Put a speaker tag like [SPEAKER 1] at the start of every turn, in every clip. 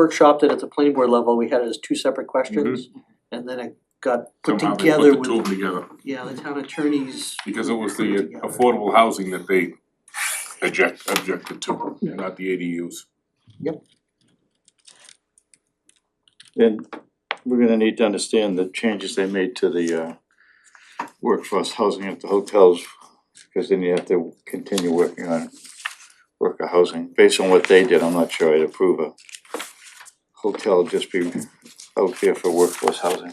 [SPEAKER 1] workshopped it at the planning board level, we had it as two separate questions. And then it got put
[SPEAKER 2] Mm-hmm. Somehow they put
[SPEAKER 1] together
[SPEAKER 2] the two of
[SPEAKER 1] with,
[SPEAKER 2] them together,
[SPEAKER 1] yeah, the town attorneys,
[SPEAKER 2] because it was
[SPEAKER 1] Put it
[SPEAKER 2] the
[SPEAKER 1] together.
[SPEAKER 2] affordable housing that they object, objected to,
[SPEAKER 1] Yeah.
[SPEAKER 2] not the ADUs.
[SPEAKER 3] And we're gonna need to understand the changes they made to the uh workforce housing at the hotels. Cause then you have to continue working on worker housing, based on what they did, I'm not sure I'd approve a hotel just be out there for workforce housing.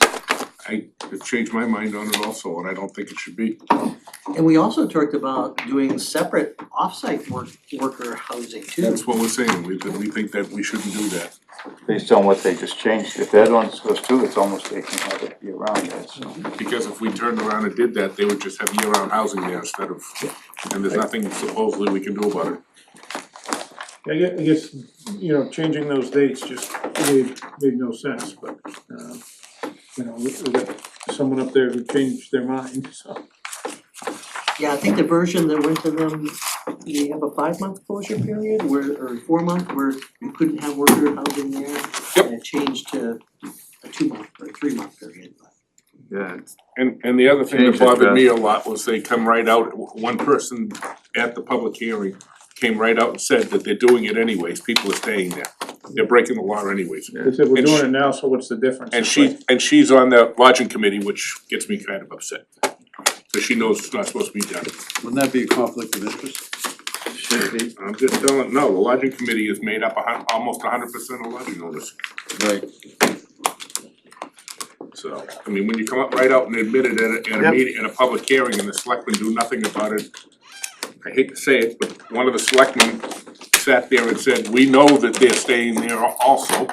[SPEAKER 2] I changed my mind on it also, and I don't think it should be.
[SPEAKER 1] and we also talked about doing separate off-site work, worker housing too.
[SPEAKER 2] That's what we're saying, we, that we think that we shouldn't do that.
[SPEAKER 3] Based on what they just changed, if that one goes through, it's almost they can have it year round, that's
[SPEAKER 2] Because if we turned around and did that, they would just have year-round housing there instead of, and there's nothing supposedly we can do about it.
[SPEAKER 4] I guess, I guess, you know, changing those dates just made, made no sense, but, uh, you know, we, we got someone up there who changed their mind, so.
[SPEAKER 1] Yeah, I think the version that went to them, you have a five-month closure period where, or four-month where you couldn't have worker housing there. And it changed to a two-month or a three-month period, but.
[SPEAKER 3] Yeah.
[SPEAKER 2] And and the other thing
[SPEAKER 3] Change
[SPEAKER 2] that
[SPEAKER 3] it,
[SPEAKER 2] bothered
[SPEAKER 3] Beth.
[SPEAKER 2] me a lot was they come right out, w- one person at the public hearing came right out and said that they're doing it anyways, people are staying there. They're breaking the law anyways.
[SPEAKER 4] They said, we're
[SPEAKER 2] And she-
[SPEAKER 4] doing it now, so what's the difference?
[SPEAKER 2] And
[SPEAKER 4] It's
[SPEAKER 2] she,
[SPEAKER 4] like,
[SPEAKER 2] and she's on the lodging committee, which gets me kind of upset. Cause she knows it's not supposed to be done.
[SPEAKER 5] Wouldn't that be a conflict of interest?
[SPEAKER 3] Should be,
[SPEAKER 2] I'm just telling, no, the lodging committee is made up a hun- almost hundred percent of lodging owners.
[SPEAKER 5] Right.
[SPEAKER 2] So, I mean, when you come up right out and admit it at a, at a
[SPEAKER 3] Yep.
[SPEAKER 2] meeting, at a public hearing, and the selectmen do nothing about it. I hate to say it, but one of the selectmen sat there and said, we know that they're staying there also.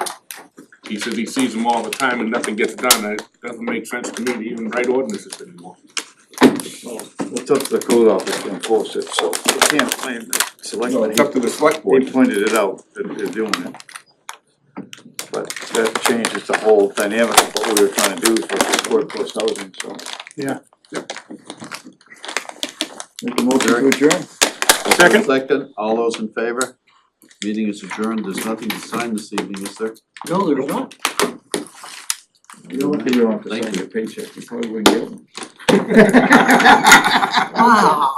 [SPEAKER 2] He says he sees them all the time and nothing gets done, it doesn't make sense to me to even write ordinances anymore.
[SPEAKER 3] it's up to the code office to enforce it, so you can't blame the
[SPEAKER 2] No,
[SPEAKER 3] selectmen,
[SPEAKER 2] it's up to the select
[SPEAKER 3] They
[SPEAKER 2] board,
[SPEAKER 3] pointed it out that they're doing it. But that changes the whole dynamic of what we were trying to do for workforce housing, so.
[SPEAKER 4] Yeah.
[SPEAKER 3] Make a motion to adjourn.
[SPEAKER 4] Second.
[SPEAKER 5] Second, all those in favor? Meeting is adjourned, there's nothing to sign this evening, is there?
[SPEAKER 1] No, there's not.
[SPEAKER 3] You're lucky you don't have to
[SPEAKER 5] Thank
[SPEAKER 3] sign
[SPEAKER 5] you.
[SPEAKER 3] your paycheck, you probably wouldn't get one.
[SPEAKER 1] Wow.